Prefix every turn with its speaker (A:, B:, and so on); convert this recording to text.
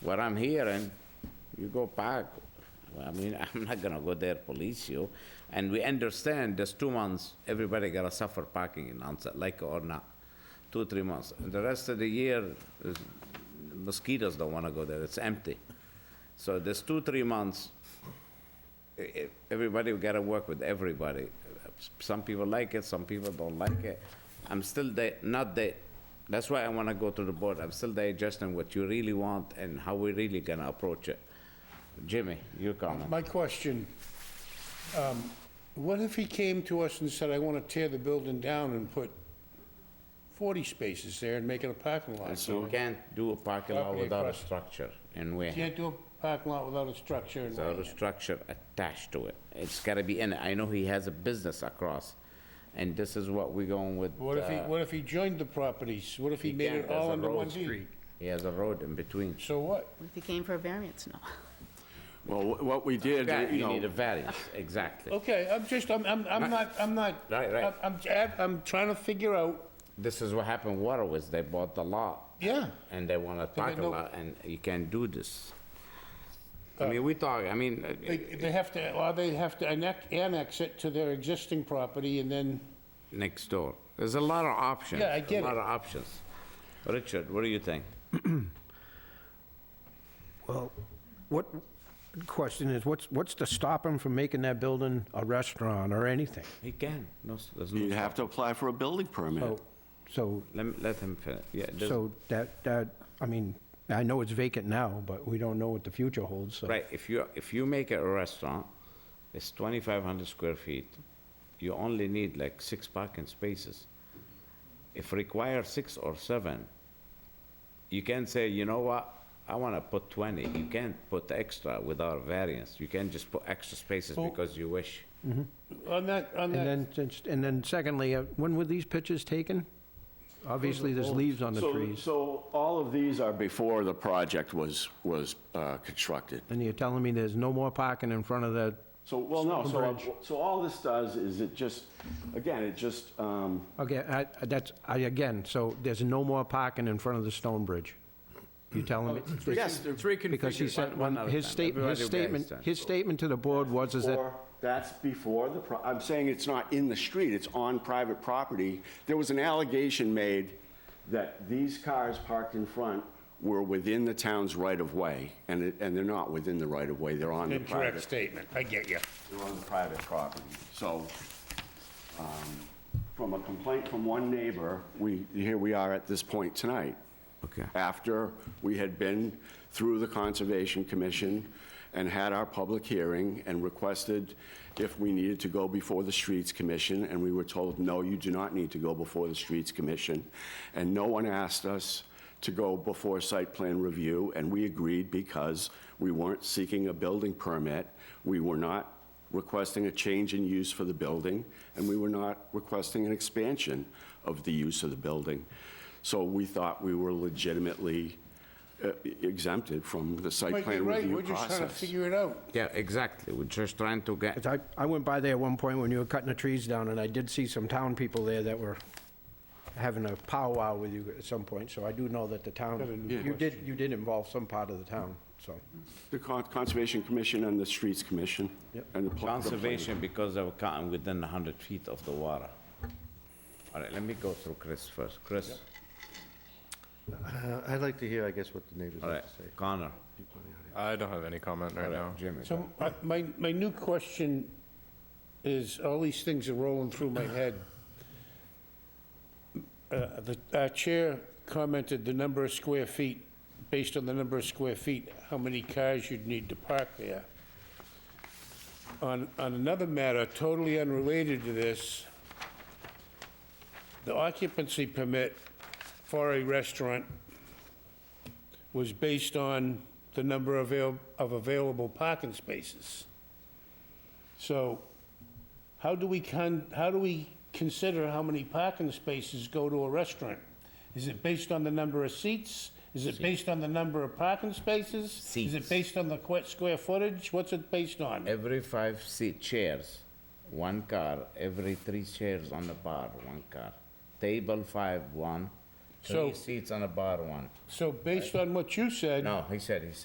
A: what I'm hearing, you go back, I mean, I'm not gonna go there, police you. And we understand there's two months, everybody gotta suffer parking in onset, like or not, two, three months. And the rest of the year, is- mosquitoes don't wanna go there, it's empty. So there's two, three months, e- e- everybody, we gotta work with everybody. Some people like it, some people don't like it. I'm still di- not di- that's why I wanna go to the board, I'm still digesting what you really want and how we really gonna approach it. Jimmy, your comment.
B: My question, um, what if he came to us and said, I want to tear the building down and put 40 spaces there and make it a parking lot?
A: So we can't do a parking lot
B: Property
A: without a
B: across-
A: structure, and we have
B: Can't do a parking lot without a structure. and-
A: without a structure attached to it. It's gotta be in it, I know he has a business across, and this is what we going with.
B: What if he,
A: uh,
B: what if he joined the properties? What if he made
A: can't,
B: it
A: there's
B: all
A: a
B: under
A: road
B: one deed?
A: street. He has a road in between.
B: So what?
C: If you came for a variance, no.
D: Well, wh- what we did,
A: Yeah,
D: you
A: you need a
D: know,
A: variance, exactly.
B: Okay, I'm just, I'm, I'm I'm not, I'm not.
A: Right, right.
B: I'm, I'm- I'm trying to figure out,
A: This is what happened with Waterways, they bought the lot,
B: yeah.
A: and they want to park a
B: no- Uh,
A: lot, and you can't do this. I mean, we talk, I mean, uh,
B: They, they have to, or they have to annex, annex it to their existing property and then,
A: next door, there's a lot of options.
B: Yeah, I get
A: A lot
B: it.
A: of options. Richard, what do you think?
E: Well, what, question is, what's, what's to stop him from making that building a restaurant or anything?
A: He can, no, s- there's
D: you'd
A: no,
D: have to apply for a building
E: So,
D: permit.
E: so,
A: let, me- let him finish, yeah, Oh. there's-
E: so that, that, I mean, I know it's vacant now, but we don't know what the future holds, so.
A: right, if you, if you make it a restaurant, it's 2,500 square feet, you only need like six parking spaces. If require six or seven, you can say, you know what, I want to put 20. You can't put extra without variance. You can't just put extra spaces because you wish.
B: on that, on
E: And
B: that.
E: then, just- and then secondly, uh, when were these pictures taken? Obviously, there's leaves on the
D: So-
E: trees,
D: So all of these are before the project was, was uh, constructed.
E: and you're telling me there's no more parking in front of the,
D: So, well, no, so, uh,
E: Stonebridge.
D: so all this does is it just, again, it just, um,
E: okay, I, I- that's, I, again, so there's no more parking in front of the stone bridge? You're telling me?
D: yes, there's-
E: Because he said,
A: One
E: when
A: at a
E: his
A: time.
E: statement,
A: Everybody
E: his
A: will get
E: statement,
A: understand.
E: his statement to the board was is that
D: Or that's before the, pro- I'm saying it's not in the street, it's on private property. There was an allegation made that these cars parked in front were within the town's right-of-way, and it, and they're not within the right-of-way, they're on the
B: Incorrect
D: private,
B: statement, I get you.
D: they're on the private property. So, um, from a complaint from one neighbor, we, here we are at this point tonight.
A: Okay.
D: After we had been through the Conservation Commission and had our public hearing and requested if we needed to go before the Streets Commission, and we were told, no, you do not need to go before the Streets Commission. And no one asked us to go before site plan review, and we agreed because we weren't seeking a building permit, we were not requesting a change in use for the building, and we were not requesting an expansion of the use of the building. So we thought we were legitimately uh, exempted from the site
B: Mike,
D: plan
B: you're right,
D: review
B: we're just trying to
D: process.
B: figure it out.
A: Yeah, exactly. We're just trying to get,
E: 'Cause I, I went by there at one point when you were cutting the trees down, and I did see some town people there that were having a powwow with you at some point, so I do know that the town, you did, you did involve some part of the town, so.
D: The Con- Conservation Commission and the Streets Commission. and the pl- the plan-
A: conservation because of cotton within 100 feet of the water. All right, let me go through Chris first. Chris,
F: Uh, I'd like to hear, I guess, what the neighbors
A: all
F: have
A: right,
F: to say.
A: Connor,
G: I don't have any comment right now.
A: Jimmy.
B: So I- my, my new question is, all these things are rolling through my head. Uh, The our chair commented the number of square feet, based on the number of square feet, how many cars you'd need to park there. On, on another matter totally unrelated to this, the occupancy permit for a restaurant was based on the number avail- of available parking spaces. So how do we con, how do we consider how many parking spaces go to a restaurant? Is it based on the number of seats? Is it based on the number of parking spaces? Is
A: Seats.
B: it based on the que- square footage? What's it based on?
A: Every five seat chairs, one car, every three chairs on the bar, one car. Table five, one. So-
B: Three seats on a bar one.
A: So based on what you said.
B: No, he said, he said